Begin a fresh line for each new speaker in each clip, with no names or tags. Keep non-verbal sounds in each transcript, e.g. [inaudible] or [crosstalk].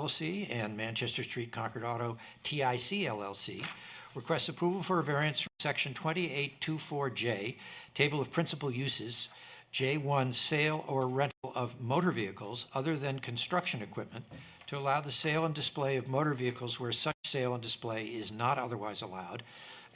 LLC and Manchester Street Concord Auto TIC LLC requests approval for a variance from Section 2824J, Table of Principal Uses, J1 Sale or Rental of Motor Vehicles Other Than Construction Equipment, to allow the sale and display of motor vehicles where such sale and display is not otherwise allowed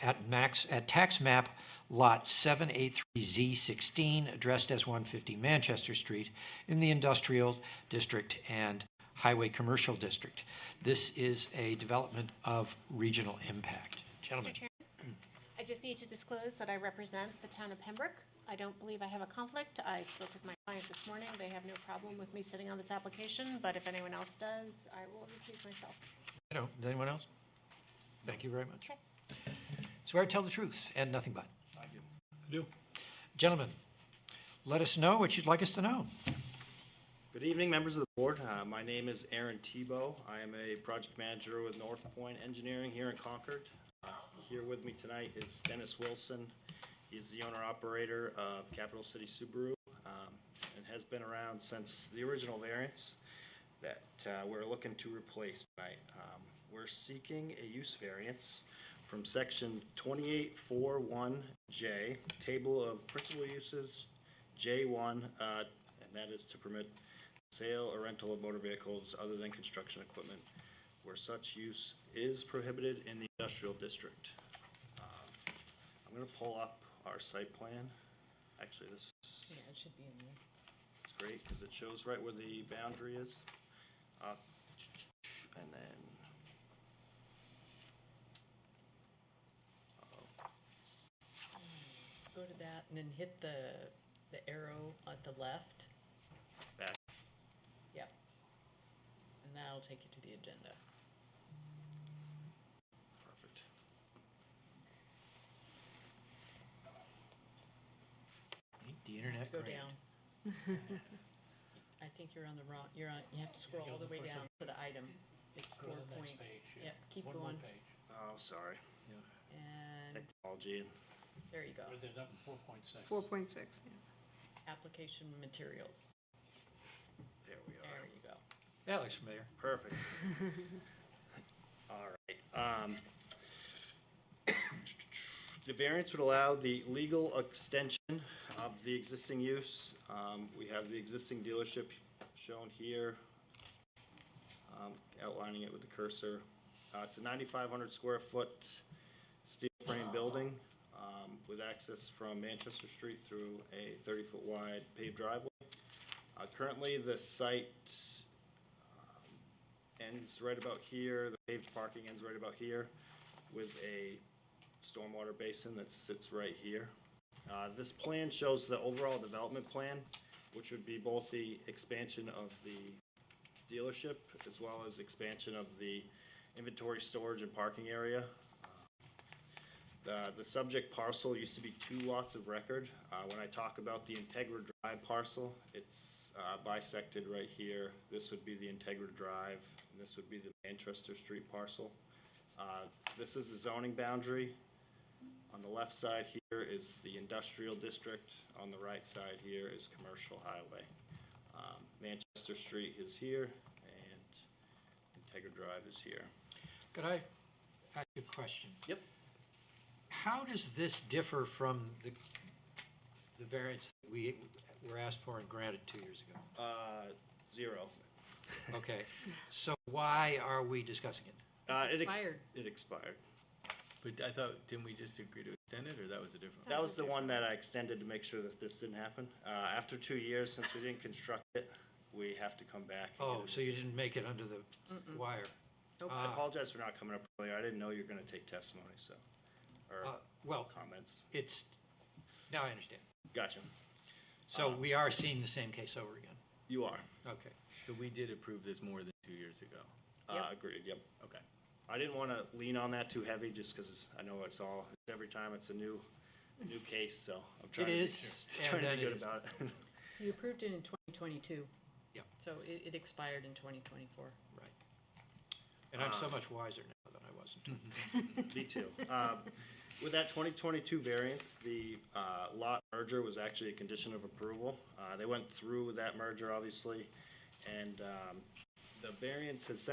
at max, at tax map Lot 783Z16, addressed as 150 Manchester Street, in the Industrial District and Highway Commercial District. This is a development of regional impact. Gentlemen,
Mr. Chairman, I just need to disclose that I represent the town of Pembroke. I don't believe I have a conflict. I spoke with my client this morning. They have no problem with me sitting on this application, but if anyone else does, I will recuse myself.
you know, does anyone else? Thank you very much.
Okay.
Swear to tell the truth and nothing but.
I do.
Gentlemen, let us know what you'd like us to know.
Good evening, members of the board. Uh, My name is Aaron Tebow. I am a project manager with North Point Engineering here in Concord. Uh, Here with me tonight is Dennis Wilson. He's the owner-operator of Capital City Subaru um, and has been around since the original variance that uh, we're looking to replace tonight. Um, We're seeking a use variance from Section 2841J, Table of Principal Uses, J1, uh, and that is to permit sale or rental of motor vehicles other than construction equipment where such use is prohibited in the industrial district. Um, I'm going to pull up our site plan. Actually, this is
it should be in there.
it's great because it shows right where the boundary is. Uh, And then. Uh-oh.
Go to that and then hit the, the arrow at the left.
Back.
Yep. And that'll take you to the agenda.
Perfect.
Ain't The internet,
Go
great.
down. I think you're on the wrong, you're on, you have to scroll all the way down to the item. It's four point. Yep, keep going.
Oh, sorry.
And
Technology.
there you go.
Four point six, yeah.
Application materials.
There we
There
are.
you go.
That looks familiar.
Perfect. [laughs] All right. um, [coughs] The variance would allow the legal extension of the existing use. Um, We have the existing dealership shown here, um, outlining it with the cursor. Uh, It's a 9,500 square foot steel frame building um, with access from Manchester Street through a 30-foot wide paved driveway. Uh, Currently, the site ends right about here, the paved parking ends right about here, with a stormwater basin that sits right here. Uh, This plan shows the overall development plan, which would be both the expansion of the dealership as well as expansion of the inventory storage and parking area. The, the subject parcel used to be two lots of record. Uh, When I talk about the Integra Drive parcel, it's uh, bisected right here. This would be the Integra Drive, and this would be the Manchester Street parcel. Uh, This is the zoning boundary. On the left side here is the industrial district. On the right side here is commercial highway. Um, Manchester Street is here, and Integra Drive is here.
Could I ask you a question?
Yep.
How does this differ from the, the variance that we were asked for and granted two years
[laughs]
ago?
Uh, Zero.
Okay, so why are we discussing it?
Uh,
It's
it ex-
expired.
It expired.
But I thought, didn't we just agree to extend it, or that was a different?
That was the one that I extended to make sure that this didn't happen. Uh, After two years, since we didn't construct it, we have to come back. and
Oh,
get
so
it.
you didn't make it under the wire?
Nope.
I
Ah,
apologize for not coming up earlier. I didn't know you were going to take testimony, so, or
uh, Well,
comments.
it's, now I understand.
Gotcha.
So
Uh,
we are seeing the same case over again.
You are.
Okay.
So we did approve this more than two years ago.
Uh, Agreed, yep.
Okay.
I didn't want to lean on that too heavy, just because I know it's all, every time it's a new, new case, so I'm trying to be
is,
sure- [laughs]
and
trying to
then
be
it
good
is-
about it.
You approved it in twenty twenty-two.
Yep.
So it, it expired in twenty twenty-four.
And I'm so
Um,
much wiser now than I was in
Me too. Um, With that 2022 variance, the uh, lot merger was actually a condition of approval. Uh, They went through with that merger, obviously, and um, the variance has since